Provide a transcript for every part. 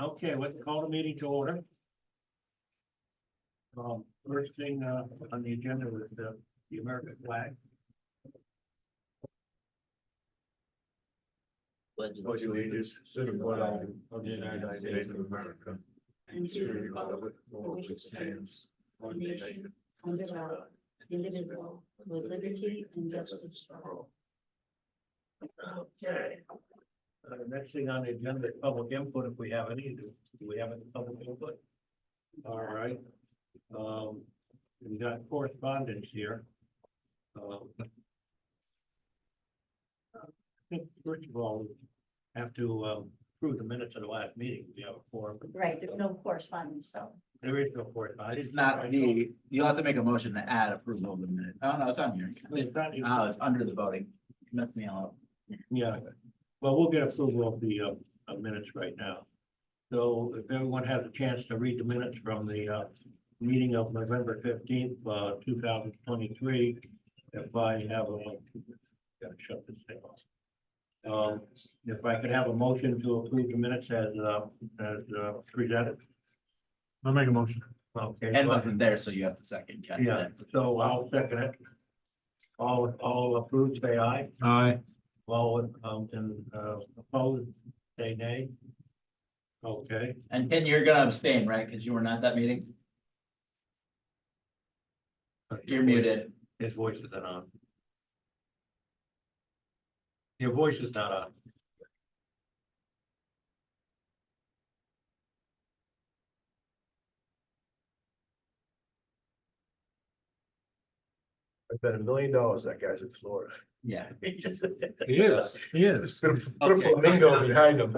Okay, let's call the meeting to order. Um, first thing, uh, on the agenda was the, the American flag. Pledge allegiance to the flag of the United States of America and to the republic for which it stands, one nation, under God, indivisible, with liberty and justice for all. Okay. Uh, the next thing on the agenda is public input, if we have any, do do we have any public input? All right, um, we got correspondence here. Um, I think First of all, we have to, um, approve the minutes of the last meeting, we have a forum, Right, there's no correspondence, so. there is no correspondence. It's not, the. you'll have to make a motion to add approval of the minute. Oh, no, it's on here. It's not- Oh, it's under the voting. Messed me up. Yeah, well, we'll get approval of the uh, of minutes right now. So if everyone has a chance to read the minutes from the uh, meeting of November fifteenth, uh, two thousand twenty-three, if I have a, gotta shut this thing off. Um, If I could have a motion to approve the minutes as uh, as uh, presented. I'll make a motion. Okay. Ed wasn't there, so you have to second. Ken. Yeah, so I'll second it. All, all approved, say aye. Aye. Well, um, and, uh, opposed, say nay. Okay, And Ken, you're gonna abstain, right? Because you were not at that meeting? You're muted. his voice is not on. Your voice is not on. I bet a million dollars that guy's in Florida. Yeah. He is, he is. Put a- put a Okay. flamingo behind him.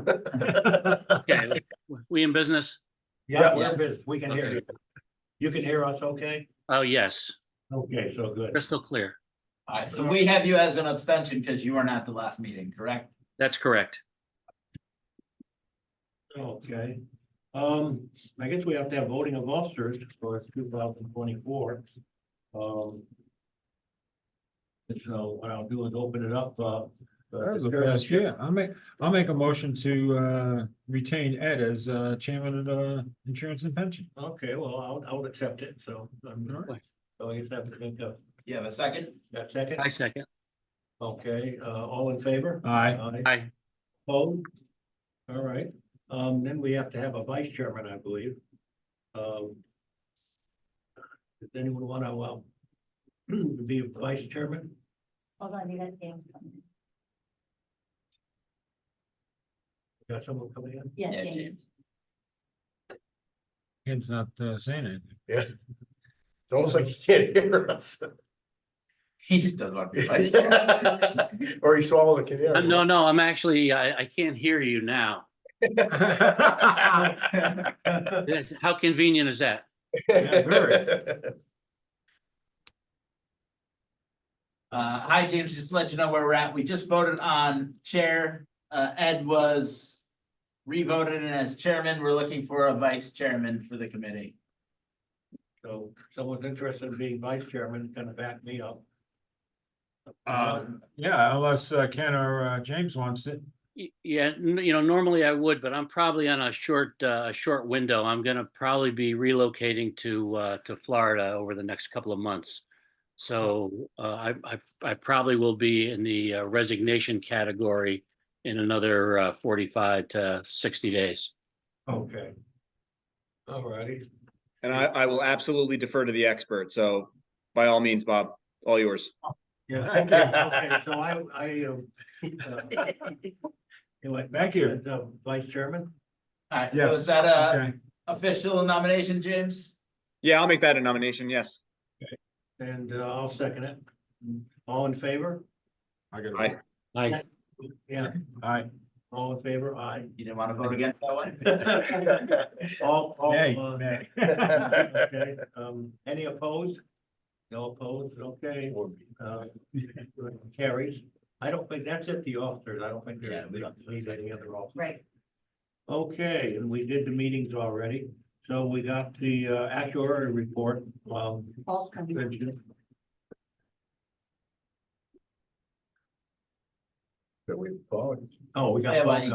Okay, we in business? Yeah, Yeah. we're busy. we can hear you. You can hear us, okay? Oh, yes, Okay, so good. crystal clear. All right, so we have you as an abstention because you were not at the last meeting, correct? That's correct. Okay, um, I guess we have to have voting of officers for two thousand twenty-four. Um. and So what I'll do is open it up, uh. That was a fast year. I'll make, I'll make a motion to uh retain Ed as uh chairman of the insurance and pension. Okay, well, I'll, I'll accept it, so, um, Alright. so I guess I have to think of You have a second? that second. I second. Okay, uh, all in favor? Aye. Aye. Aye. Opposed? All right, um, then we have to have a vice chairman, I believe. Um. Does anyone want to, um, to be a vice chairman? Hold on, you got Dan coming. Got someone coming in? Yeah, Yeah, Dan. James. Ed's not uh, saying it. It's almost like he can't hear us. He just doesn't want to be vice chair. Or he swallowed a Uh, canary. No, no, I'm actually, I, I can't hear you now. That's- How convenient is that? Uh, hi, James, just to let you know where we're at. We just voted on chair. Uh, Ed was revoted and as chairman, we're looking for a vice chairman for the committee. So someone's interested in being vice chairman, gonna back me up. Uh, Yeah, unless uh, Ken or uh, James wants it. Y- Yeah, n- you know, normally I would, but I'm probably on a short, uh, a short window. I'm gonna probably be relocating to, uh, to Florida over the next couple of months. So, uh, I, I, I probably will be in the uh, resignation category in another, uh, forty-five to sixty days. Okay. All righty, And I, I will absolutely defer to the expert. So by all means, Bob, all yours. yeah, okay, okay, so I, I, um. uh, anyway, Thank you. as, uh, Vice chairman? All right, so Yes. is that Uh, a Okay. official nomination, James? Yeah, I'll make that a nomination. Yes. And uh, I'll second it. All in favor? I got it. Aye. I, Yeah, Aye. all in favor, aye. You didn't want to vote against that one? All, all, Nay, uh, nay. okay, um, any opposed? No opposed, okay, uh, carries. I don't think, that's it, the officers, I don't think Yeah, there's, we we don't don't- need any other officers. Right, Okay, and we did the meetings already, so we got the uh, actuary report, um, Paul's coming. But we followed. Oh, we Yeah, Oh, got. but-